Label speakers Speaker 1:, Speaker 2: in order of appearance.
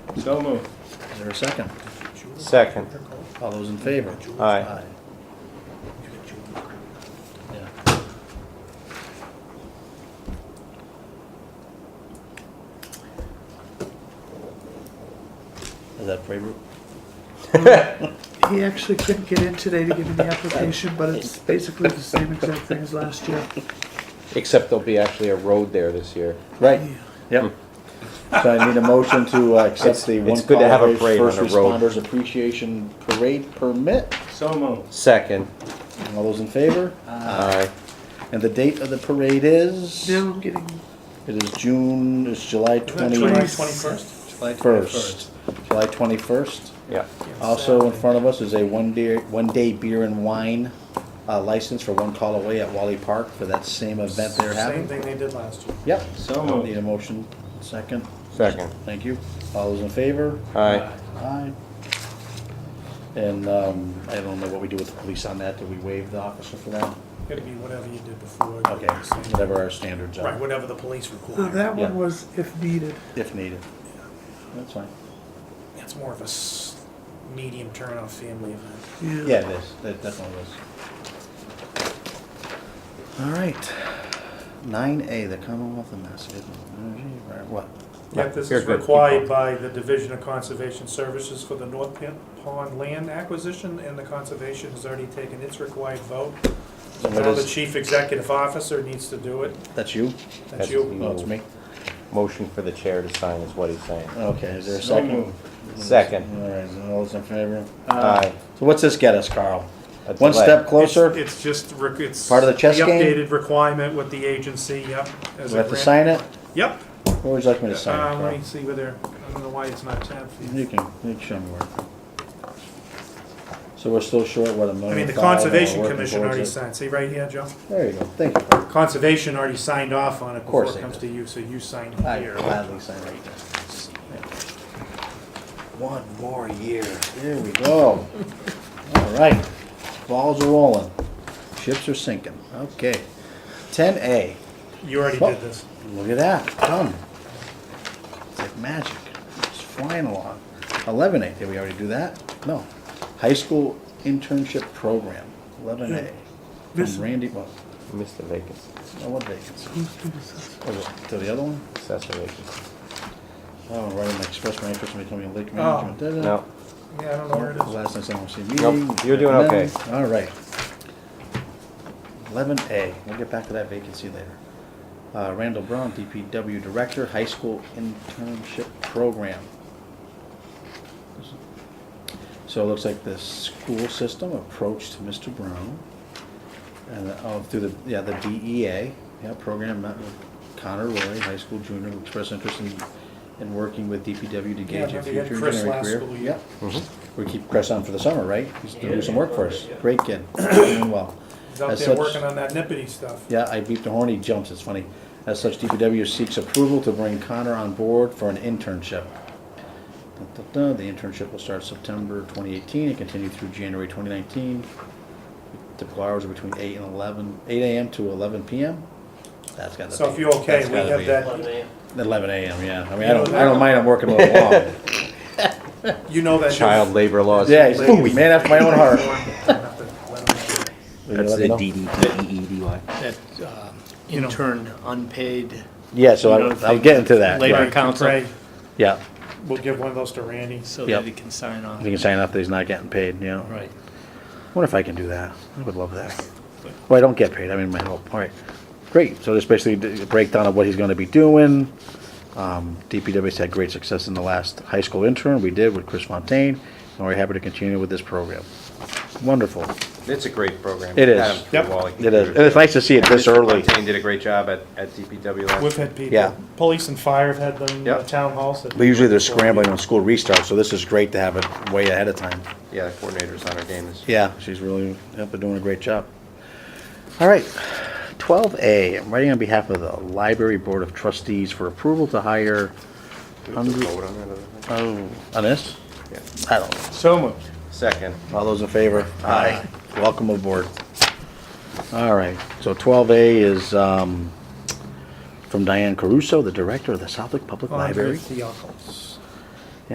Speaker 1: So moved.
Speaker 2: Is there a second?
Speaker 3: Second.
Speaker 2: All those in favor?
Speaker 3: Aye.
Speaker 2: Yeah. Is that favorite?
Speaker 3: Hmm.
Speaker 4: He actually couldn't get in today to give me the application, but it's basically the same exact thing as last year.
Speaker 3: Except there'll be actually a road there this year.
Speaker 2: Right, yep. So I need a motion to uh, accept the
Speaker 3: It's-
Speaker 2: one
Speaker 3: it's good to have a
Speaker 2: Colorado
Speaker 3: parade
Speaker 2: First
Speaker 3: on a road.
Speaker 2: Responders Appreciation Parade Permit.
Speaker 1: So moved.
Speaker 3: Second.
Speaker 2: All those in favor?
Speaker 3: Aye.
Speaker 2: And the date of the parade is?
Speaker 4: Now I'm getting,
Speaker 2: It is June, it's July
Speaker 4: Twenty-
Speaker 2: twenty-first.
Speaker 1: July
Speaker 2: July twenty-first.
Speaker 3: Yeah.
Speaker 2: Also in front of us is a one day, one day beer and wine uh, license for One Call Away at Wally Park for that same event they're
Speaker 5: Same
Speaker 2: having.
Speaker 5: thing they did last year.
Speaker 2: Yep.
Speaker 1: So
Speaker 2: Need
Speaker 1: moved.
Speaker 2: a motion, second?
Speaker 3: Second.
Speaker 2: Thank you. All those in favor?
Speaker 3: Aye.
Speaker 2: Aye. And um, I don't know what we do with the police on that. Do we waive the officer for that?
Speaker 5: It'd be whatever you did before.
Speaker 2: Okay, whatever our standards
Speaker 5: Right,
Speaker 2: are,
Speaker 5: whatever the police
Speaker 4: now
Speaker 5: require.
Speaker 4: that
Speaker 2: Yeah.
Speaker 4: one was if needed.
Speaker 2: if needed. That's fine.
Speaker 5: It's more of a s- medium turnoff family event.
Speaker 2: Yeah, it is. It definitely is. All right. Nine A, the Commonwealth of Massachusetts. What?
Speaker 3: Yeah,
Speaker 5: Yeah, this
Speaker 3: you're
Speaker 5: is
Speaker 3: good. Keep
Speaker 5: required
Speaker 3: going.
Speaker 5: by the Division of Conservation Services for the North Pin- Pond Land Acquisition, and the conservation has already taken its required vote.
Speaker 2: So what
Speaker 5: Now the
Speaker 2: is-
Speaker 5: chief executive officer needs to do it.
Speaker 2: That's you?
Speaker 5: That's
Speaker 3: That's
Speaker 5: you.
Speaker 3: me.
Speaker 2: No, it's me.
Speaker 3: Motion for the chair to sign is what he's saying.
Speaker 2: Okay, is there a
Speaker 1: So
Speaker 2: second?
Speaker 1: moved.
Speaker 2: All
Speaker 3: Second.
Speaker 2: right, so all those in favor?
Speaker 3: Aye.
Speaker 2: So what's this get us, Carl?
Speaker 3: A
Speaker 2: One
Speaker 3: delay.
Speaker 2: step closer?
Speaker 5: It's it's just, rec- it's.
Speaker 2: Part of the chess game?
Speaker 5: updated requirement with the agency, yep. as
Speaker 2: Do I
Speaker 5: a
Speaker 2: have to
Speaker 5: grant-
Speaker 2: sign it?
Speaker 5: Yep.
Speaker 2: Where would you like me to sign
Speaker 5: Uh, let
Speaker 2: it,
Speaker 5: me see whether, I don't know why it's not tabbed.
Speaker 2: Carl? You can, you can show me where. So we're still short, what, a million
Speaker 5: I
Speaker 2: five?
Speaker 5: mean, the
Speaker 2: and we're
Speaker 5: Conservation
Speaker 2: working
Speaker 5: Commission
Speaker 2: towards
Speaker 5: already
Speaker 2: it.
Speaker 5: signed, see right here, Joe?
Speaker 2: There you go, thank you. Carl.
Speaker 5: Conservation already signed off on it before
Speaker 2: course
Speaker 5: it
Speaker 2: they
Speaker 5: comes to
Speaker 2: did.
Speaker 5: you, so you signed
Speaker 2: I
Speaker 5: here.
Speaker 2: gladly sign right there. One more year. There we go. All right, balls are rolling, ships are sinking, okay. Ten A,
Speaker 5: You already
Speaker 2: Well-
Speaker 5: did this.
Speaker 2: look at that, done. It's like magic, it's flying along. Eleven A, did we already do that? No. High school internship program, eleven A.
Speaker 4: This-
Speaker 2: From Randy, well,
Speaker 3: Missed the vacancy.
Speaker 2: no, what vacancy?
Speaker 4: Who's doing this?
Speaker 2: Oh, what, To the other one?
Speaker 3: Assessor vacancy.
Speaker 2: Oh, right, I'm expressing my interest in becoming a lake
Speaker 5: Oh.
Speaker 2: management. da-da.
Speaker 3: No.
Speaker 5: Yeah, I don't know where it is.
Speaker 2: Last night's MLC meeting.
Speaker 3: Nope, you're doing okay.
Speaker 2: All right. Eleven A, we'll get back to that vacancy later. Uh, Randall Brown, DPW Director, High School Internship Program. So it looks like the school system approached Mr. Brown and, uh, oh, through the, yeah, the DEA, yeah, program met with Connor Roy, high school junior, who expressed interest in, in working with DPW to
Speaker 5: Yeah,
Speaker 2: gauge a
Speaker 5: remember you
Speaker 2: future
Speaker 5: had Chris
Speaker 2: engineering
Speaker 5: last
Speaker 2: career.
Speaker 5: school year.
Speaker 2: Yep. We keep Chris on for the summer, right? He's doing some work for us. Great kid, doing well.
Speaker 5: He's out
Speaker 2: As
Speaker 5: there
Speaker 2: such-
Speaker 5: working on that nippity stuff.
Speaker 2: Yeah, I beeped the horn, he jumps, it's funny. As such, DPW seeks approval to bring Connor on board for an internship. Dun, dun, dun. The internship will start September 2018 and continue through January 2019. Typical hours are between 8 and 11, 8 a.m. to 11 p.m. That's got to be.
Speaker 5: So if you're okay,
Speaker 2: that's
Speaker 5: we
Speaker 2: gotta
Speaker 5: have
Speaker 2: be-
Speaker 5: that,
Speaker 2: 11 a.m., yeah. I mean, I
Speaker 5: You know
Speaker 2: don't, I
Speaker 5: that-
Speaker 2: don't mind I'm working a little long.
Speaker 5: you know that.
Speaker 3: Child labor laws.
Speaker 2: Yeah, he's a man after my own heart. Will you
Speaker 6: That's
Speaker 2: let me
Speaker 6: the E
Speaker 2: know?
Speaker 6: DDEEDY.
Speaker 7: that um, intern unpaid
Speaker 2: Yeah, so
Speaker 7: You
Speaker 2: I'm,
Speaker 7: don't
Speaker 2: I'm
Speaker 7: think
Speaker 2: getting to that.
Speaker 7: labor
Speaker 2: right.
Speaker 7: council,
Speaker 2: Yeah,
Speaker 5: We'll give one of those to Randy.
Speaker 7: so
Speaker 2: Yep.
Speaker 7: that he can sign off.
Speaker 2: you can sign up that he's not getting paid, you know.
Speaker 7: Right.
Speaker 2: Wonder if I can do that. I would love that. Well, I don't get paid. I mean, my help. All right. Great. So there's basically a breakdown of what he's going to be doing. Um, DPW's had great success in the last high school intern we did with Chris Fontaine, and we're happy to continue with this program. Wonderful.
Speaker 3: It's a great program.
Speaker 2: It is.
Speaker 3: Adam through
Speaker 5: Yep.
Speaker 3: Wally.
Speaker 2: It is. And it's nice to see it this
Speaker 3: Mr.
Speaker 2: early.
Speaker 3: Fontaine did a great job at, at DPW last
Speaker 5: We've had people,
Speaker 2: Yeah.
Speaker 5: police and fire have had them, uh,
Speaker 3: Yep.
Speaker 5: town halls. that-
Speaker 2: But usually they're scrambling when school restarts, so this is great to have it way ahead of time.
Speaker 3: Yeah, the coordinator's on our game this
Speaker 2: Yeah, she's really, yep, they're doing a great job. All right, twelve A, I'm writing on behalf of the Library Board of Trustees for approval to hire,
Speaker 3: Do we have to vote on that other thing?
Speaker 2: oh, on this?
Speaker 3: Yeah.
Speaker 2: I don't know.
Speaker 1: So moved.
Speaker 3: Second.
Speaker 2: All those in favor? Aye. Welcome aboard. All right, so twelve A is, um, from Diane Caruso, the Director of the Southwick Public
Speaker 5: Andre
Speaker 2: Library.
Speaker 5: Theophilus.